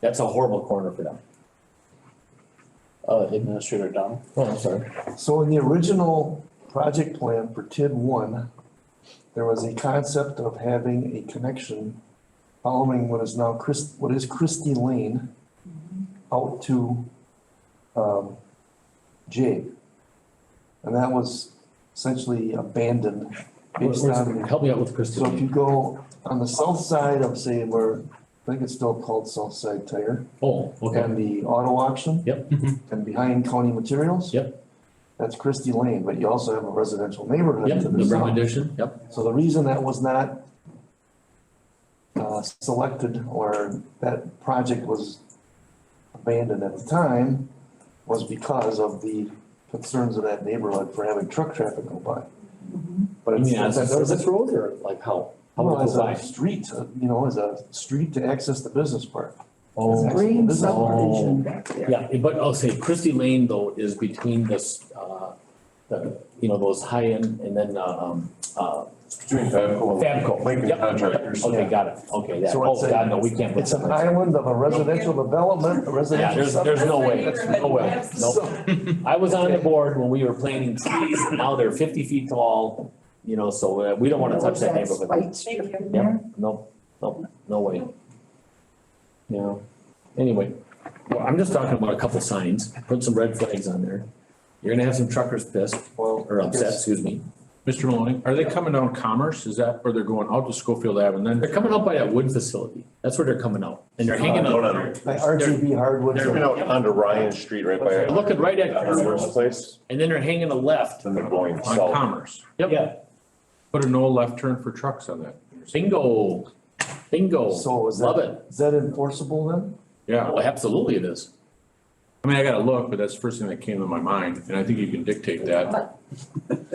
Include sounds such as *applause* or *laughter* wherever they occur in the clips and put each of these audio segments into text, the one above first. That's a horrible corner for them. Uh, Administrator Dom, Oh, I'm sorry. So in the original project plan for TID one, there was a concept of having a connection following what is now Chris, what is Christie Lane out to, um, Jay. And that was essentially abandoned based on, Help me out with Christie so if you Lane. go on the south side of say where, I think it's still called South Side Tire, Oh, okay. and the auto auction Yep, and behind County Materials. Yep. That's Christie Lane, but you also have a residential neighborhood yep, to the the brown south. addition, yep, So the reason that was not uh, selected or that project was abandoned at the time was because of the concerns of that neighborhood for having truck traffic go by. But I it's, mean, as a that was service road or like how? How well, would as it a go street, uh, you know, as a street to access the business park. by? Green This is- subdivision back there. Oh. Yeah, but I'll say Christie Lane though is between this, uh, the, you know, those high end and then, um, uh, Between Fabco and Fabco. Lincoln Yep. Contractors. Okay, got it, okay, that, So oh, it's a- God, no, we can't. put It's an that. island of a residential development, a Yeah, residential there's, there's subdivision. no way, That's no way, neighborhood. nope. *laughs* I was on the board when we were planting trees, and now they're fifty feet tall, you know, so uh, we don't wanna touch that That's neighborhood. White strip in Yep, there. nope, nope, no way. Yeah, anyway, well, I'm just talking about a couple signs, put some red flags on there. You're gonna have some truckers pissed, Well, or upset, yes. excuse me. Mr. Maloney, are they coming down Commerce? Is that where they're going out to Schofield Ave and then? They're coming out by that wood facility, that's where they're coming out, and they're hanging Uh, no, out. no. By RGB hardwood. They're coming out onto Ryan Street right by. They're looking right at Harvard's Commerce, place, and then they're hanging a left, then they're going On south. Commerce. yep, Put a no left turn for trucks on that. bingo, bingo, So is love that, it. is that enforceable then? Yeah, Oh, absolutely it is. I mean, I gotta look, but that's the first thing that came to my mind, and I think you can dictate that.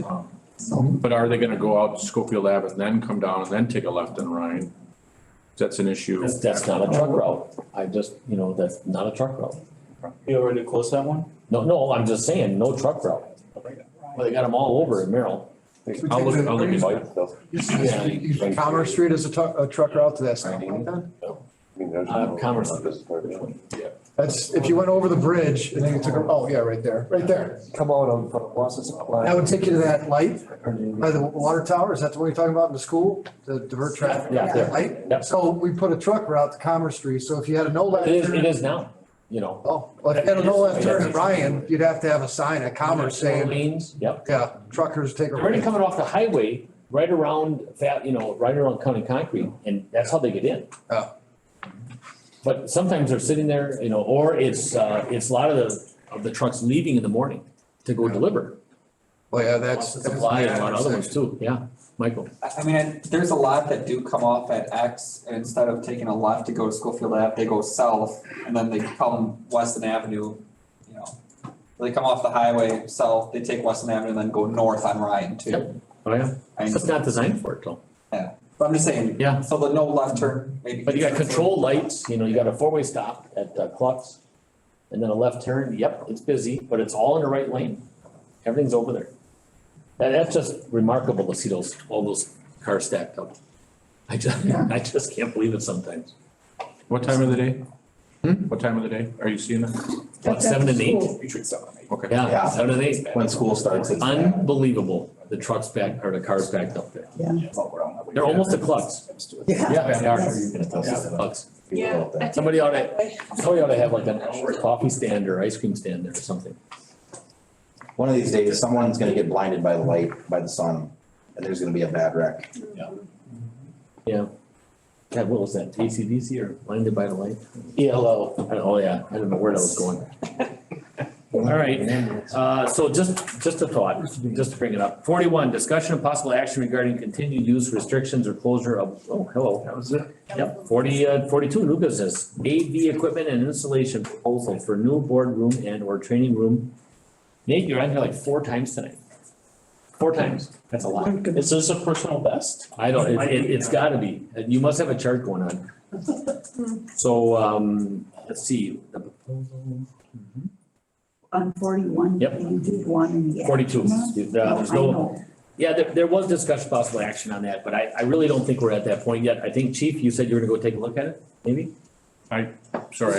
Um, But are they gonna go out to Schofield Ave and then come down and then take a left on Ryan? That's an issue. That's, that's not a truck route. I just, you know, that's not a truck route. you already closed that one? No, no, I'm just saying, no truck route. Well, they got them all over in Merrill. I'll look, I'll look. into it. Bike stuff. You see the street, you see Commerce Street as a truck, a truck route to that stoplight then? I mean, there's Uh, no- Commerce. This part. That's, if you went over the bridge and then you took, a- oh, yeah, right there, right there. Come out of uh, Wausau's That outline. would take you to that light by the water tower, is that the one you're talking about in the school, to divert traffic? Yeah, yeah. Right? Yep. So we put a truck route to Commerce Street, so if you had a no left. It is, turn- it is now, you know. Oh, well, if you had a no left turn at Ryan, you'd have to have a sign at Commerce saying, Lanes, yep. yeah, truckers take a. They're already coming off the highway, right around that, you know, right around County Concrete, and that's how they get in. Oh. But sometimes they're sitting there, you know, or it's, uh, it's a lot of the, of the trucks leaving in the morning to go deliver. Well, yeah, that's. Supply and a lot of other ones too, yeah. Michael, I I mean, there's a lot that do come off at X, and instead of taking a left to go to Schofield Ave, they go south, and then they come Weston Avenue, you know. They come off the highway south, they take Weston Avenue, and then go north on Ryan Yep. too. oh yeah, I it's mean, just not designed for it though. but I'm just saying, Yeah, so the no left turn, maybe. But you got control lights, you know, you got a four-way stop at uh, Clucks, and then a left turn, yep, it's busy, but it's all in the right lane, everything's over there. That, that's just remarkable to see those, all those cars stacked up. I just, *laughs* I just can't believe it sometimes. What time of the day? Hmm? What time of the day? Are you seeing that? About seven and eight, Okay. yeah, seven and eight, When school starts. it's- unbelievable, the trucks back, or the cars backed up there. They're almost at Clucks, Yeah. yeah, they are, Yes. Clucks. Yeah. I think Somebody ought to- exactly. Somebody ought to have like a coffee stand or ice cream stand there or something. One of these days, someone's gonna get blinded by the light, by the sun, and there's gonna be a bad wreck. God, what was that, ACDC or Blinded by the Light? ELO. Oh, yeah, I don't know where that was going. *laughs* All right, uh, so just, just a thought, just to bring it up. Forty-one, discussion of possible action regarding continued use restrictions or closure of, oh, hello. That was it. Yep, forty, uh, forty-two, new business, AV equipment and installation proposal for new boardroom and or training room. Nate, you're on here like four times tonight. Four times, that's a Oh lot. Is this a personal best? I don't, it, it, it's gotta be, you must have a chart going on. *laughs* So, um, let's see, the proposal, On forty-one, Yep. uh, you did one in the. forty-two, afternoon. Yeah, there's Uh-huh. I no, know. yeah, there, there was discussion possible action on that, but I, I really don't think we're at that point yet. I think, Chief, you said you were gonna go take a look at it, maybe? Sorry,